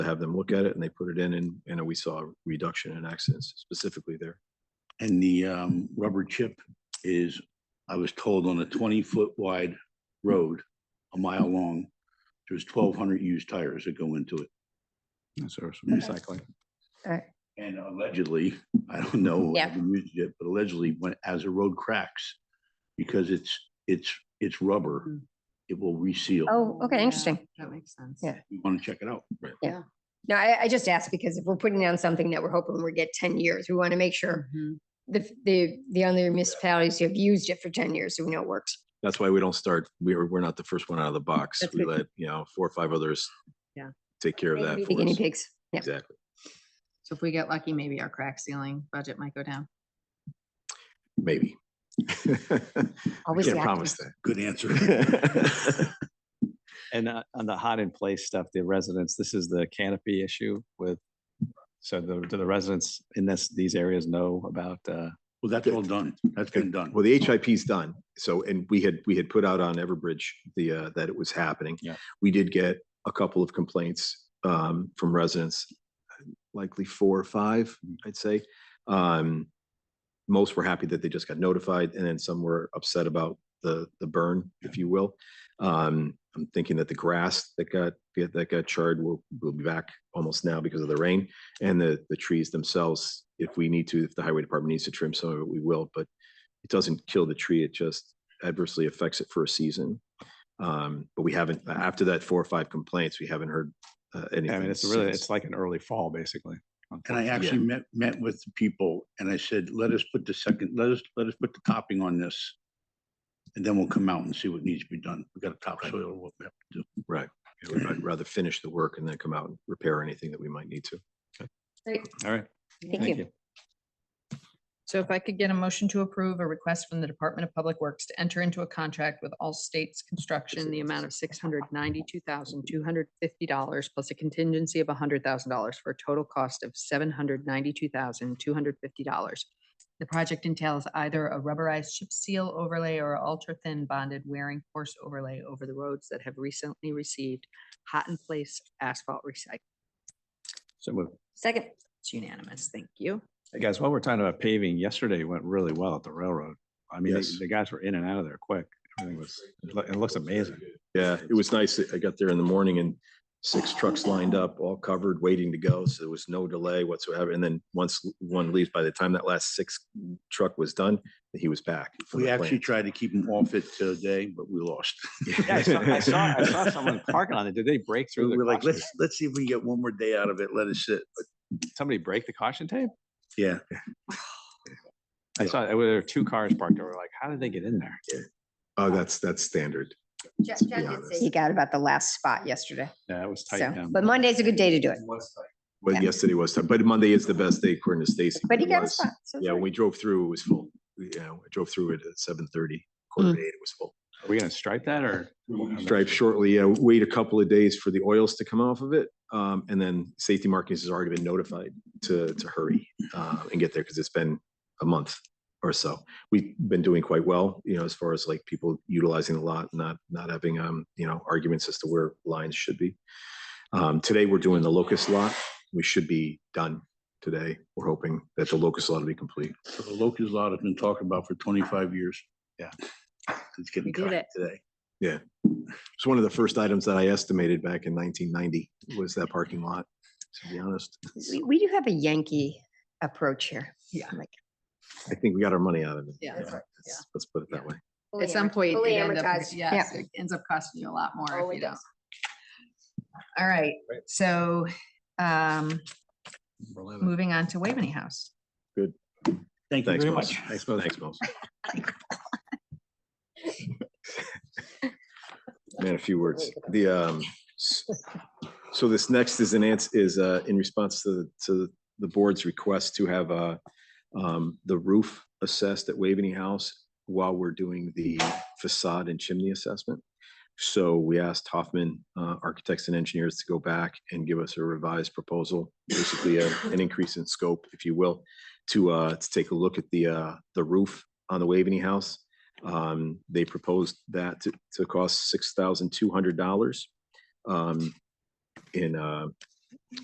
have them look at it and they put it in and, and we saw a reduction in accidents specifically there. And the um rubber chip is, I was told on a twenty foot wide road, a mile long. There's twelve hundred used tires that go into it. That's ours, Recycling. Alright, And allegedly, I don't know. I Yeah. haven't used it, But allegedly, when as a road cracks, because it's it's it's rubber, Mm. it will reseal. oh, okay, Yeah, interesting. That makes sense. Yeah. You want to check it out? No, I, I just asked because if we're putting down something that we're hoping we get ten years, we want to make sure Mhm. the, the, the other municipalities who have used it for ten years, so we know it works. That's why we don't start, we're, we're not the first one out of the box. That's We good. let, you know, four or five others. Yeah. Take care of They can that be The for guinea us. pigs. Yeah, Exactly. So if we get lucky, maybe our crack ceiling budget might go down. Maybe. I always the Can't promise optimist. Good answer. that. And uh, on the hot in place stuff, the residents, this is the canopy issue with, so the, do the residents in this, these areas know about, uh, Well, that's all done. That's been done. Well, the HIP's done. So, and we had, we had put out on Everbridge the, uh, that it was happening. Yeah. We did get a couple of complaints, um, from residents, likely four or five, I'd say. Um, most were happy that they just got notified and then some were upset about the, the burn, if you will. Um, I'm thinking that the grass that got, that got charred will, will be back almost now because of the rain. And the, the trees themselves, if we need to, if the highway department needs to trim some of it, we will, but it doesn't kill the tree, it just adversely affects it for a season. Um, but we haven't, after that four or five complaints, we haven't heard uh, anything. I mean, it's really, since. it's like an early fall, basically. And I actually met, met with the people and I said, let us put the second, let us, let us put the topping on this. And then we'll come out and see what needs to be done. We got a topsoil, what we have to do. You know, I'd rather finish the work and then come out and repair anything that we might need to. Great, All right, Thank thank you. you. So if I could get a motion to approve a request from the Department of Public Works to enter into a contract with All States Construction, in the amount of six hundred ninety-two thousand, two hundred fifty dollars plus a contingency of hundred thousand dollars for a total cost of seven hundred ninety-two thousand, two hundred fifty dollars. The project entails either a rubberized chip seal overlay or ultra-thin bonded wearing force overlay over the roads that have recently received hot-in-place asphalt recycling. So moved. Second, It's unanimous. Thank you. Hey, guys, while we're talking about paving, yesterday went really well at the railroad. I mean, Yes. the- the guys were in and out of there quick. Everything was, it loo- it looks amazing. Yeah, it was nice. I got there in the morning and six trucks lined up, all covered, waiting to go. So there was no delay whatsoever. And then once one leaves, by the time that last six truck was done, he was back. from We the actually plant. tried to keep them off it today, but we lost. Yeah, I saw, I saw, I saw someone parking on it. Did they break We through the were like, caution? let's, let's see if we can get one more day out of it. Let it sit. But Somebody break the caution tape? Yeah, I saw, there were two cars parked. over. like, how did they get in there? Oh, that's, that's standard. Jack, to be Jack did honest. say, he got about the last spot yesterday. Yeah, it was tight. So, yeah. but Monday's a good day to do it. Well, Yeah. yesterday was, tough, but Monday is the best day according to Stacy. But he It got a was. spot. so it's Yeah, all when right. we drove through, it was full. You know, I drove through it at seven thirty, quarter to Mm. eight, it was full. Are we gonna stripe that or? Stripe shortly, uh, wait a couple of days for the oils to come off of it. Um, and then safety markings has already been notified to, to hurry, uh, and get there because it's been a month or so. We've been doing quite well, you know, as far as like people utilizing the lot, not, not having, um, you know, arguments as to where lines should be. Um, today we're doing the locust lot. We should be done today. We're hoping that the locust lot will be complete. so the locust lot has been talked about for twenty-five years. Yeah. It's We getting did cut it. today. It's one of the first items that I estimated back in nineteen ninety was that parking lot, to be honest. We, we do have a Yankee approach here. Yeah. Like, I think we got our money out of it. Yeah, that's right. Let's- Let's put it that way. fully At some amorti- point, fully it end up, amortized, yeah. yes, it ends up costing you a lot Oh, more if it you don't. does. All right, so, um, Thank moving on to Waveney House. Thank you Thanks, very Mel. much. Thanks, Mel. Thanks, Mel. Man, a few words. The, um, s- so this next is an answer, is, uh, in response to, to the board's request to have, uh, um, the roof assessed at Waveney House while we're doing the facade and chimney assessment. So we asked Hoffman, uh, Architects and Engineers to go back and give us a revised proposal, basically a- an increase in scope, if you will to uh to take a look at the uh the roof on the Waveney House. Um, they proposed that to to cost six thousand two hundred dollars. Um, in uh